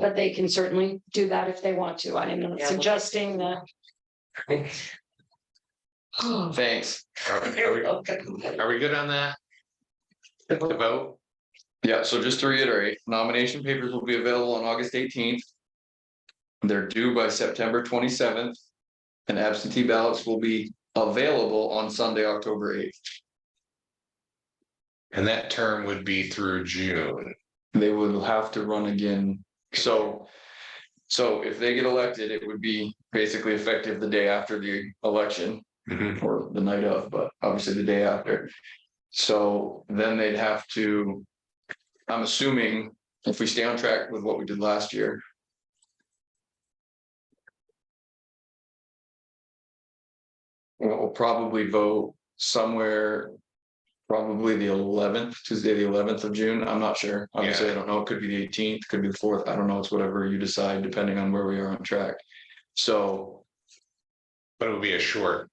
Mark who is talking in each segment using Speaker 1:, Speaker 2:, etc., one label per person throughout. Speaker 1: but they can certainly do that if they want to. I am not
Speaker 2: Yeah.
Speaker 1: suggesting that.
Speaker 3: Thanks. Are we- are
Speaker 2: You're
Speaker 3: we-
Speaker 2: welcome.
Speaker 3: are we good on that? The vote? Yeah, so just to reiterate, nomination papers will be available on August eighteenth. They're due by September twenty-seventh. And absentee ballots will be available on Sunday, October eighth.
Speaker 4: And that term would be through June.
Speaker 3: They will have to run again. So, so if they get elected, it would be basically effective the day after the election. or the night of, but obviously the day after. So then they'd have to, I'm assuming if we stay on track with what we did last year. We'll we'll probably vote somewhere, probably the eleventh, Tuesday, the eleventh of June. I'm not sure. Obviously, I don't know. It could be the eighteenth, could be the fourth. I don't know. It's whatever you decide, depending on where we are on track. So
Speaker 4: But it would be a short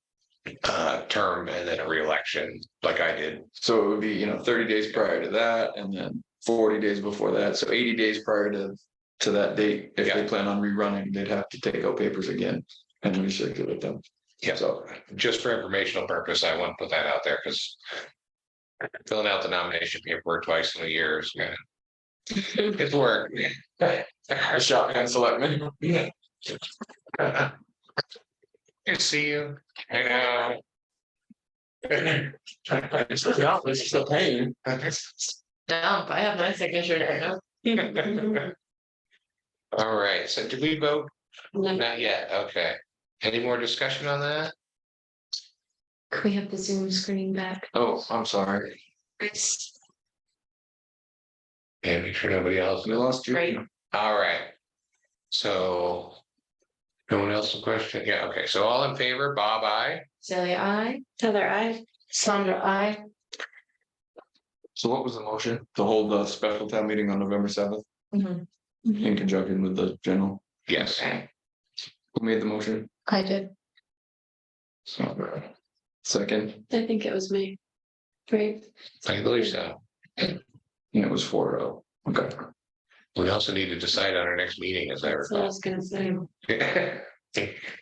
Speaker 4: uh term and then a reelection like I did.
Speaker 3: So it would be, you know, thirty days prior to that and then forty days before that. So eighty days prior to, to that date, if they
Speaker 4: Yeah.
Speaker 3: plan on rerunning, they'd have to take out papers again and recirculate them.
Speaker 4: Yeah.
Speaker 3: So,
Speaker 4: Just for informational purpose, I want to put that out there because filling out the nomination paperwork twice in a year is gonna it's work.
Speaker 3: shotgun selectmen.
Speaker 4: Good to see you. I know.
Speaker 3: It's still paying.
Speaker 2: Dump, I have my signature there.
Speaker 4: All right, so did we vote?
Speaker 1: No.
Speaker 4: Not yet, okay. Any more discussion on that?
Speaker 2: Can we have the Zoom screen back?
Speaker 3: Oh, I'm sorry.
Speaker 4: Yeah, make sure nobody else.
Speaker 3: We lost you.
Speaker 2: Great.
Speaker 4: All right. So. No one else a question? Yeah, okay, so all in favor, Bob, I,
Speaker 2: Sally, I.
Speaker 1: Heather, I. Sandra, I.
Speaker 3: So what was the motion? To hold the special town meeting on November seventh in conjunction with the general.
Speaker 4: yes,
Speaker 3: Who made the motion?
Speaker 2: I did.
Speaker 3: So, Second,
Speaker 2: I think it was me. Right.
Speaker 4: I believe so.
Speaker 3: and it was four oh. Okay.
Speaker 4: We also need to decide on our next meeting, as I
Speaker 2: That's what I
Speaker 4: recall.
Speaker 2: was gonna say.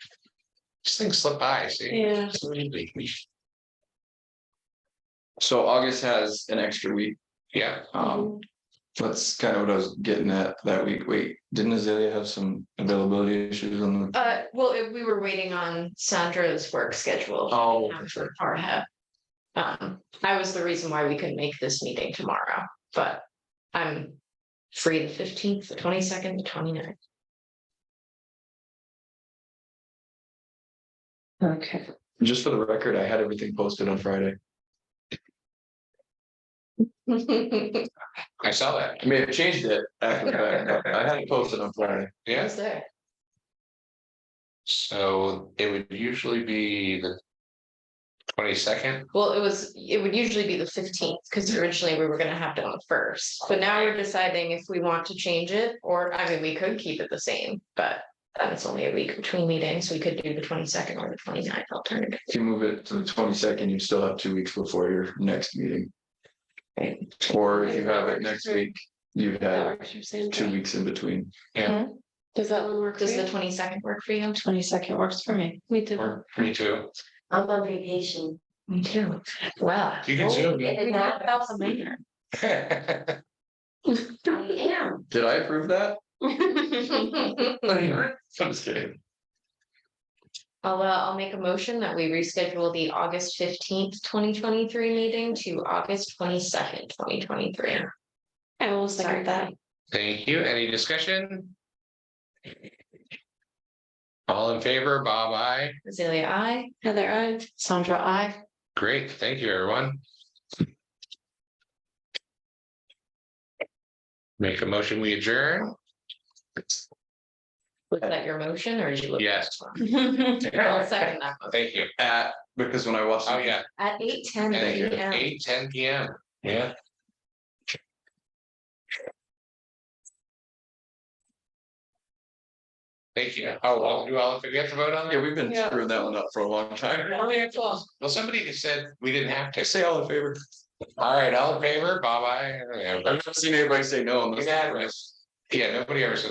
Speaker 4: Just things slip by, see?
Speaker 2: Yeah.
Speaker 3: So August has an extra week.
Speaker 4: Yeah,
Speaker 3: Um, That's kind of what I was getting at that week. Wait, didn't Azalea have some availability issues on the?
Speaker 2: Uh, well, it- we were waiting on Sandra's work schedule.
Speaker 3: Oh,
Speaker 2: um, for Parha. Um, I was the reason why we couldn't make this meeting tomorrow, but I'm free the fifteenth, the twenty-second, the 29th.
Speaker 1: Okay.
Speaker 3: just for the record, I had everything posted on Friday.
Speaker 2: I
Speaker 4: I saw that,
Speaker 3: I may have changed it. after that, but I had it posted on Friday.
Speaker 4: yeah,
Speaker 2: was there.
Speaker 4: so it would usually be the. Twenty-second,
Speaker 2: Well, it was, it would usually be the fifteenth, because originally we were gonna have it on the first, but now we're deciding if we want to change it, or, I mean, we could keep it the same, but. Then it's only a week between meetings, we could do the twenty-second or the 29th alternative.
Speaker 3: If you move it to the twenty second, you still have two weeks before your next meeting.
Speaker 2: Right.
Speaker 3: Or if you have it next week, you'd have two
Speaker 1: Does
Speaker 3: weeks in between.
Speaker 1: that one work?
Speaker 2: Does the twenty-second work for you?
Speaker 1: Twenty second works for me. We
Speaker 2: Mm-hmm.
Speaker 1: did.
Speaker 4: or me too.
Speaker 5: I'm on vacation.
Speaker 2: Me too. Wow.
Speaker 4: You can zoom
Speaker 5: And
Speaker 4: in.
Speaker 5: that-
Speaker 4: I
Speaker 5: I am.
Speaker 3: Did I approve that?
Speaker 2: I'll,
Speaker 3: I'm just kidding.
Speaker 2: uh, I'll make a motion that we reschedule the August fifteenth, twenty twenty-three meeting to August twenty-second, twenty twenty-three.
Speaker 1: I will second
Speaker 2: Sorry.
Speaker 1: that.
Speaker 4: Thank you, any discussion? All in favor, Bob, I,
Speaker 2: Azalea, I.
Speaker 1: Heather, I. Sandra, I.
Speaker 4: great, thank you, everyone. Make a motion, we adjourn,
Speaker 2: Was that your motion or did you? look at
Speaker 4: Yes.
Speaker 2: this one? I'll second that. motion.
Speaker 4: thank you,
Speaker 3: At, because when I watched.
Speaker 4: oh, yeah.
Speaker 2: At eight ten
Speaker 4: Thank you.
Speaker 2: AM.
Speaker 4: Eight, ten P M, yeah. Thank you. Oh, well, do all, do we have to vote on
Speaker 3: Yeah,
Speaker 4: it?
Speaker 3: we've been screwing that one up for a long time.
Speaker 4: Well, somebody just said we didn't have to. Say all in favor. All right, all in favor, bye bye.
Speaker 3: I've never seen anybody say no on this.
Speaker 4: Unanimous. Yeah, nobody ever says